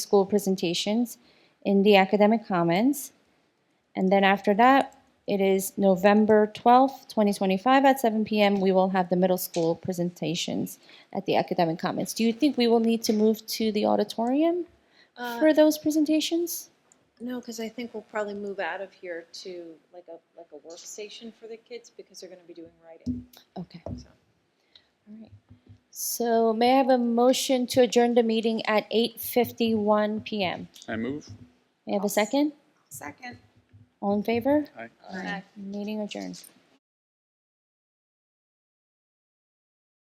school presentations in the academic commons. And then after that, it is November 12th, 2025 at 7 PM, we will have the middle school presentations at the academic commons. Do you think we will need to move to the auditorium Uh, for those presentations? No, because I think we'll probably move out of here to like a, like a workstation for the kids because they're gonna be doing writing, Okay, so. all right. So may I have a motion to adjourn the meeting at 8:51 PM? I move. May I have a second? Second. All in favor? Aye. Aye. Meeting adjourned.